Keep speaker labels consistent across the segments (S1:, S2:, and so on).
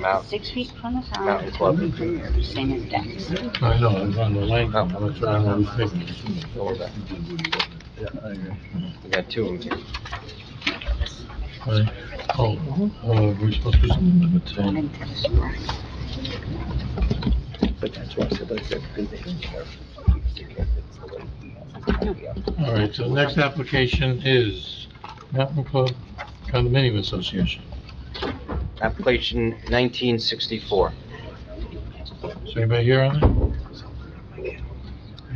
S1: Mountain,
S2: Six feet from the sound.
S1: Mountain Club.
S2: Same as decks.
S3: I know, I was on the lane, I'm not trying to rethink.
S1: go with that. We got two in here.
S3: Oh, uh, we supposed to do something with the ten?
S2: Into the store.
S1: But that's why I said, like, they're good, they don't care.
S3: All right, so the next application is Mountain Club Condominium Association.
S1: Application nineteen sixty-four.
S3: Is anybody here on that?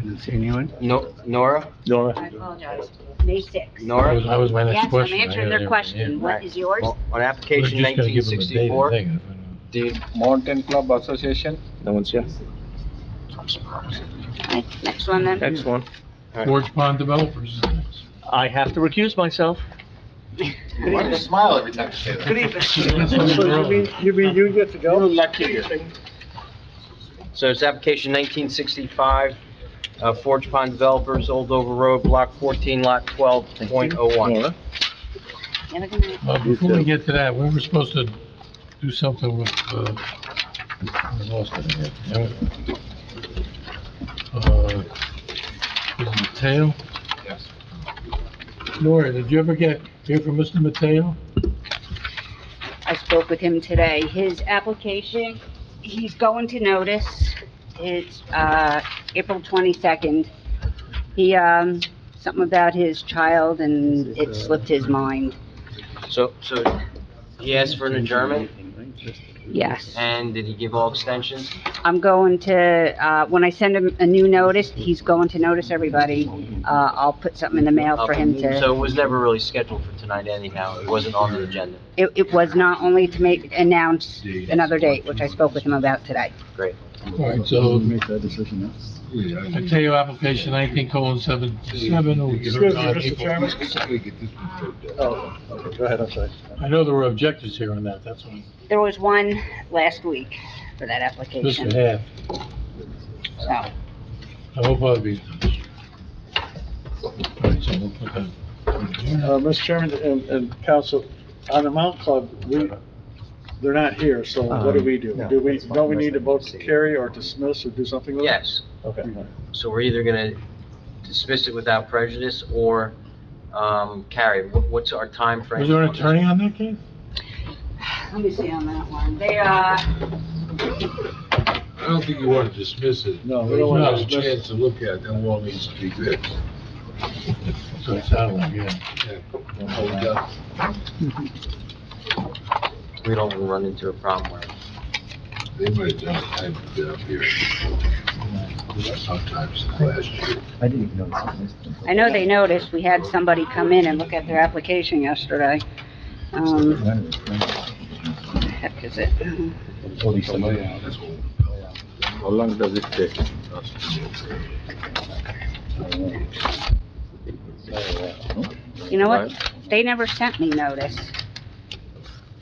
S4: Didn't see anyone?
S1: No, Nora,
S2: I apologize. May sixth.
S3: That was,
S1: Nora?
S3: that was my
S2: Yes,
S3: next
S2: I'm
S3: question. I
S2: answering
S3: had
S2: their
S3: everything,
S2: question. What is
S1: Well,
S2: yours?
S1: On
S3: yeah. We're
S1: application
S3: just gonna
S1: nineteen
S3: give them a date, I
S1: sixty-four,
S3: think.
S1: did,
S4: Mountain Club Association.
S5: No one's here.
S2: Right, Next one then.
S5: Next one.
S3: Forge Pond Developers is next.
S5: I have to recuse myself.
S6: Why do you smile every time you say that?
S1: so it's application nineteen sixty-five, uh, Forge Pond Developers, Old Dover Road, Block fourteen, Lot twelve point oh one.
S5: Nora.
S2: Have a good night.
S3: Uh, before we get to that, we were supposed to do something with, uh, I lost it again. Yeah. Uh, is it Mateo?
S6: Yes.
S3: Nora, did you ever get, hear from Mr. Mateo?
S2: I spoke with him today. His application, he's going to notice. It's, uh, April twenty-second. He, um, something about his child and it slipped his mind.
S1: So, so he asked for an adjournment,
S2: Yes.
S1: and did he give all extensions?
S2: I'm going to, uh, when I send him a new notice, he's going to notice everybody. Uh, I'll put something in the mail for him to,
S1: Uh, So it was never really scheduled for tonight anyhow, it wasn't on the agenda.
S2: it, it was not only to make, announce another date, which I spoke with him about today.
S3: All right, so
S4: Make that decision now.
S3: Mateo, application nineteen colon seven seven. oh
S4: Go ahead, I'm sorry.
S3: I know there were objectives here on that, that's why.
S2: There was one last week for that
S3: Mr.
S2: application,
S3: Half,
S2: so.
S3: I hope I'll be. All right, so we'll put that.
S7: Uh, Mr. Chairman and, and council, on the Mount Club, we, they're not here, so what do we do?
S4: Um, no,
S7: Do we,
S4: that's fine.
S7: don't we need to vote to carry or dismiss or do something with it?
S1: Yes,
S4: Okay.
S1: so we're either gonna dismiss it without prejudice or, um, carry, What- what's our timeframe?
S3: Was there an
S1: on this?
S3: attorney on that case?
S2: Let me see on that one. They, uh,
S8: I don't think you want to dismiss it.
S7: No, we
S8: But
S7: don't
S8: when
S7: want
S8: There's
S7: to
S8: a
S7: dismiss it.
S8: chance to look at, it, then all needs to be fixed.
S3: So it sounded like, yeah.
S8: Oh, we got-
S1: We don't wanna run into a problem where
S8: They might have done, it. I haven't been up here. Sometimes last year.
S4: I didn't even know.
S2: I know they noticed, we had somebody come in and look at their application yesterday. Um, heck is it?
S8: That's all.
S5: How long does it take?
S2: You know what? They never sent me notice.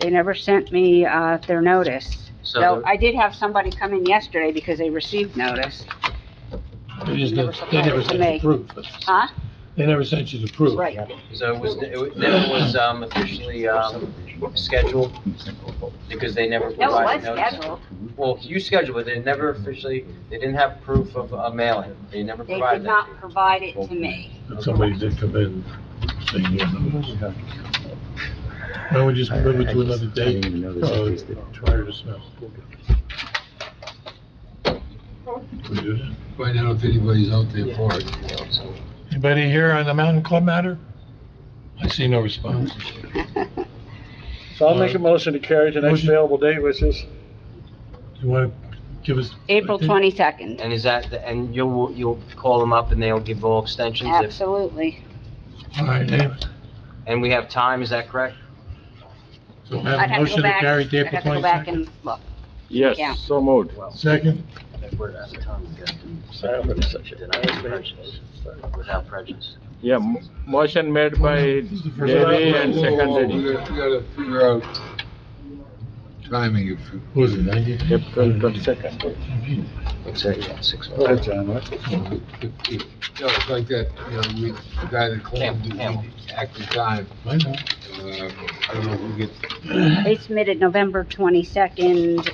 S2: They never sent me, uh, their notice.
S1: So,
S2: So I did have somebody come in yesterday because they received notice.
S3: They just, didn't- they never sent you the proof.
S2: Huh?
S3: They never sent you the proof.
S2: Right.
S1: so it was, it was- never was, um, officially, um, scheduled because they never
S2: No, it
S1: provided
S2: was
S1: notice.
S2: scheduled.
S1: Well, you scheduled, but they never officially, they didn't have proof of a mailing, they never
S2: They
S1: provided
S2: did
S1: that.
S2: not provide it to me.
S3: But somebody did come in saying, you know, why don't we just move it to another day? Uh, Try to dismiss. We do that.
S8: Find out if anybody's out there for it.
S3: Anybody here on the Mountain Club matter? I see no response.
S7: So I'll make a motion to carry to next
S3: Motion.
S7: available date, which is,
S3: You want to give us?
S2: April twenty-second,
S1: And is that, the- and you'll, you'll call them up and they'll give all extensions if,
S2: absolutely.
S3: All right, anyway.
S1: and we have time, is that correct?
S3: So
S2: I'd
S3: we have a
S2: have to go
S3: motion to
S2: back,
S3: carry
S2: I'd
S3: to April
S2: have to go back
S3: 22nd.
S2: and look. Yeah.
S5: Yes, so moved.
S3: Second,
S1: We're out of time, we got to deny prejudice, without prejudice.
S5: Yeah, mo- motion made by
S3: This is the first
S5: Devi and
S8: Whoa, whoa, whoa,
S5: seconded.
S8: We gotta we gotta figure out timing if you
S3: What was it, ninety?
S5: April twenty-second.
S1: Exactly, yeah, six oh months.
S4: Go ahead, John, what?
S8: Yeah, it's like that, you know, we, the guy that claimed
S1: Ham- Hamel.
S8: the active time,
S3: I know.
S8: uh, I don't know who gets
S2: They submitted November 22nd